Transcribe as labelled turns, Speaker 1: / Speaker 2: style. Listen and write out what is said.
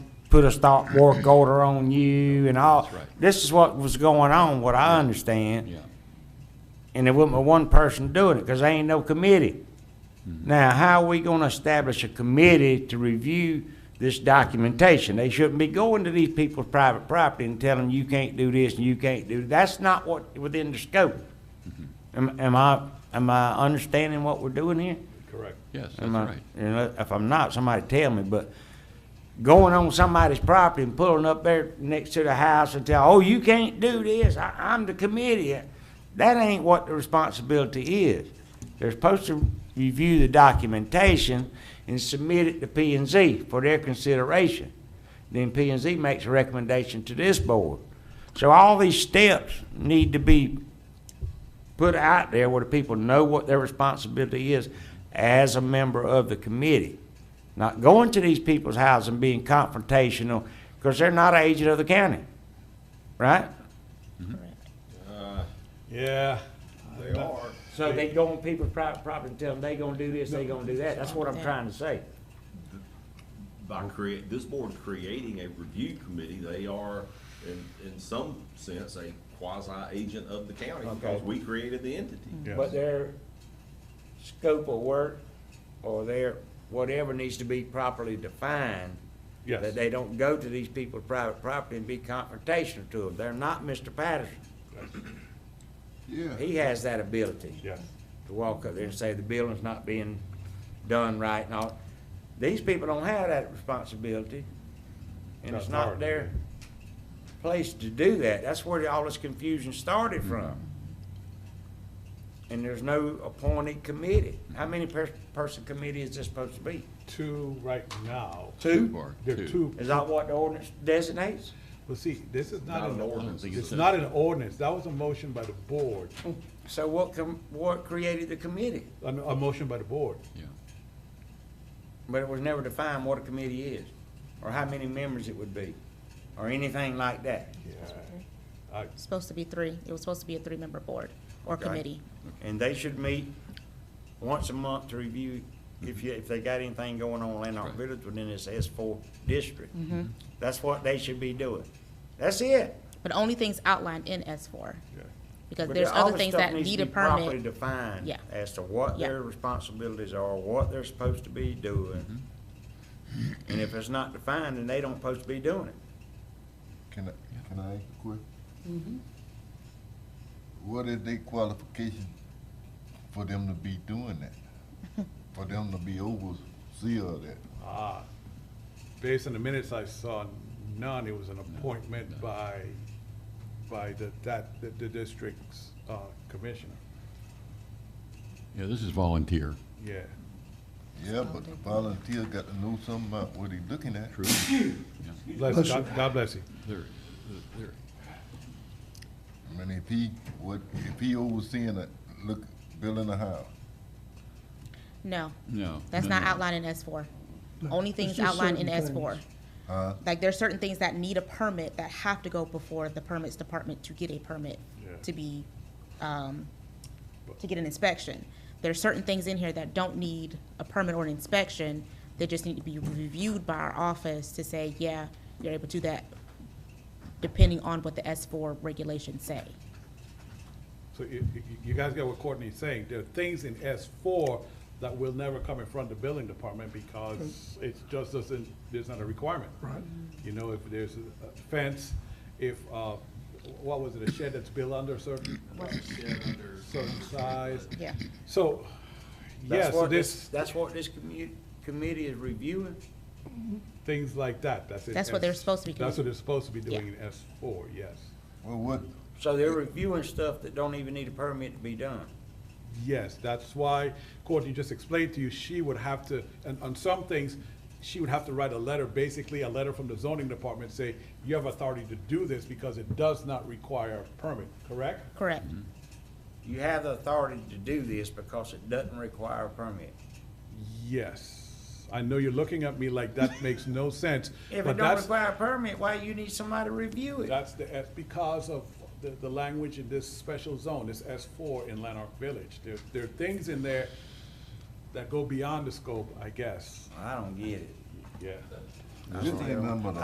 Speaker 1: put a stop work order on you and all.
Speaker 2: That's right.
Speaker 1: This is what was going on, what I understand.
Speaker 2: Yeah,
Speaker 1: and there wasn't but one person doing it because there ain't no committee.
Speaker 2: Mm-hmm.
Speaker 1: Now, how are we going to establish a committee to review this documentation? They shouldn't be going to these people's private property and telling them you can't do this and you can't do, that's not what, within the scope.
Speaker 2: Mm-hmm.
Speaker 1: Am, am I, am I understanding what we're doing here?
Speaker 3: Correct.
Speaker 2: yes, that's
Speaker 1: Am I-
Speaker 2: right.
Speaker 1: you know, If I'm not, somebody tell me, but going on somebody's property and pulling up there next to the house and tell, oh, you can't do this, I, I'm the committee, that ain't what the responsibility is. They're supposed to review the documentation and submit it to P and Z for their consideration. Then P and Z makes a recommendation to this board. So all these steps need to be put out there where the people know what their responsibility is as a member of the committee. Not going to these people's houses and being confrontational, because they're not an agent of the county, right?
Speaker 3: Yeah. They are.
Speaker 1: So they go on people's private property and tell them they gonna do this, they gonna do that, that's what I'm trying to say.
Speaker 4: by create, this board creating a review committee, they are, in, in some sense, a quasi-agent of the county, because
Speaker 1: Okay.
Speaker 4: we created the entity.
Speaker 1: But their scope of work, or their, whatever needs to be properly defined.
Speaker 3: Yes.
Speaker 1: That they don't go to these people's private property and be confrontational to them, they're not Mr. Patterson.
Speaker 5: Yeah.
Speaker 1: He has that ability.
Speaker 3: Yes.
Speaker 1: To walk up there and say the building's not being done right and all. These people don't have that responsibility. And it's
Speaker 3: That's
Speaker 1: not
Speaker 3: hard.
Speaker 1: their place to do that. That's where all this confusion started from. And there's no appointed committee. How many per- person committee is this supposed to be?
Speaker 3: Two right now.
Speaker 1: Two?
Speaker 2: Bar,
Speaker 3: There are
Speaker 2: two.
Speaker 3: two.
Speaker 1: Is that what the ordinance designates?
Speaker 3: Well, see, this is not
Speaker 4: Not
Speaker 3: an
Speaker 4: an
Speaker 3: ordinance.
Speaker 4: ordinance.
Speaker 2: think it's
Speaker 3: It's
Speaker 2: a-
Speaker 3: not an ordinance. That was a motion by the board,
Speaker 1: So what com, what created the committee?
Speaker 3: a, a motion by the board.
Speaker 2: Yeah,
Speaker 1: But it was never defined what a committee is, or how many members it would be, or anything like that.
Speaker 3: I,
Speaker 6: Supposed to be three. It was supposed to be a three-member board or
Speaker 1: Okay.
Speaker 6: committee.
Speaker 1: And they should meet once a month to review if you, if they got anything going on in Lanark
Speaker 2: Right.
Speaker 1: Village within this S four district.
Speaker 6: Mm-hmm.
Speaker 1: That's what they should be doing. That's it.
Speaker 6: But only things outlined in S four,
Speaker 3: yeah.
Speaker 6: because
Speaker 1: But
Speaker 6: there's
Speaker 1: all
Speaker 6: other
Speaker 1: this
Speaker 6: things
Speaker 1: stuff
Speaker 6: that
Speaker 1: needs to
Speaker 6: need a
Speaker 1: be properly
Speaker 6: permit.
Speaker 1: Defined
Speaker 6: Yeah.
Speaker 1: as to what
Speaker 6: Yeah.
Speaker 1: their responsibilities are, what they're supposed to be doing. And if it's not defined, then they don't supposed to be doing it.
Speaker 5: Can I, can I ask a question? What is their qualification for them to be doing that? For them to be overseer of that?
Speaker 3: Ah, based on the minutes I saw, none, it was an appointment by, by the, that, the- the district's uh, commissioner.
Speaker 2: yeah, this is volunteer.
Speaker 3: Yeah,
Speaker 5: Yeah, but the volunteer got to know something about what he looking at. True.
Speaker 3: bless, God God bless you.
Speaker 2: They're, they're,
Speaker 5: I mean, if he, what, if he overseeing it, look, building a house,
Speaker 6: No,
Speaker 2: no.
Speaker 6: that's
Speaker 2: no,
Speaker 6: not
Speaker 2: no.
Speaker 6: outlined in S four. Only things outlined in S four.
Speaker 5: huh?
Speaker 6: Like there's certain things that need a permit that have to go before the permits department to get a permit
Speaker 3: Yeah.
Speaker 6: to be, um, to get an inspection. There's certain things in here that don't need a permit or an inspection. They just need to be reviewed by our office to say, yeah, you're able to do that, depending on what the S four regulations say.
Speaker 3: So you, you- you guys get what Courtney's saying, there are things in S four that will never come in front of the building department because it just doesn't, there's not a requirement. Right. You know, if there's a fence, if, uh, what was it, a shed that's built under a certain, certain size?
Speaker 6: Yeah.
Speaker 3: So,
Speaker 1: That's
Speaker 3: yeah, so
Speaker 1: what
Speaker 3: this,
Speaker 1: That's what this commu- committee is reviewing?
Speaker 3: things like that, that's it.
Speaker 6: That's what they're supposed to be
Speaker 3: That's what
Speaker 6: doing.
Speaker 3: they're supposed to be doing
Speaker 6: Yeah.
Speaker 3: in S four, yes.
Speaker 5: Well, what,
Speaker 1: So they're reviewing stuff that don't even need a permit to be done.
Speaker 3: Yes, that's why Courtney just explained to you, she would have to, and on some things, she would have to write a letter, basically a letter from the zoning department, say, you have authority to do this because it does not require a permit, correct?
Speaker 6: Correct.
Speaker 1: You have the authority to do this because it doesn't require a permit.
Speaker 3: Yes. I know you're looking at me like that makes no sense,
Speaker 1: If it
Speaker 3: but
Speaker 1: don't
Speaker 3: that's,
Speaker 1: require a permit, why you need somebody to review it?
Speaker 3: that's the, that's because of the, the language in this special zone, this S four in Lanark Village. There, there are things in there that go beyond the scope, I guess,
Speaker 1: I don't get it.
Speaker 3: yeah.
Speaker 5: this ain't nothing but a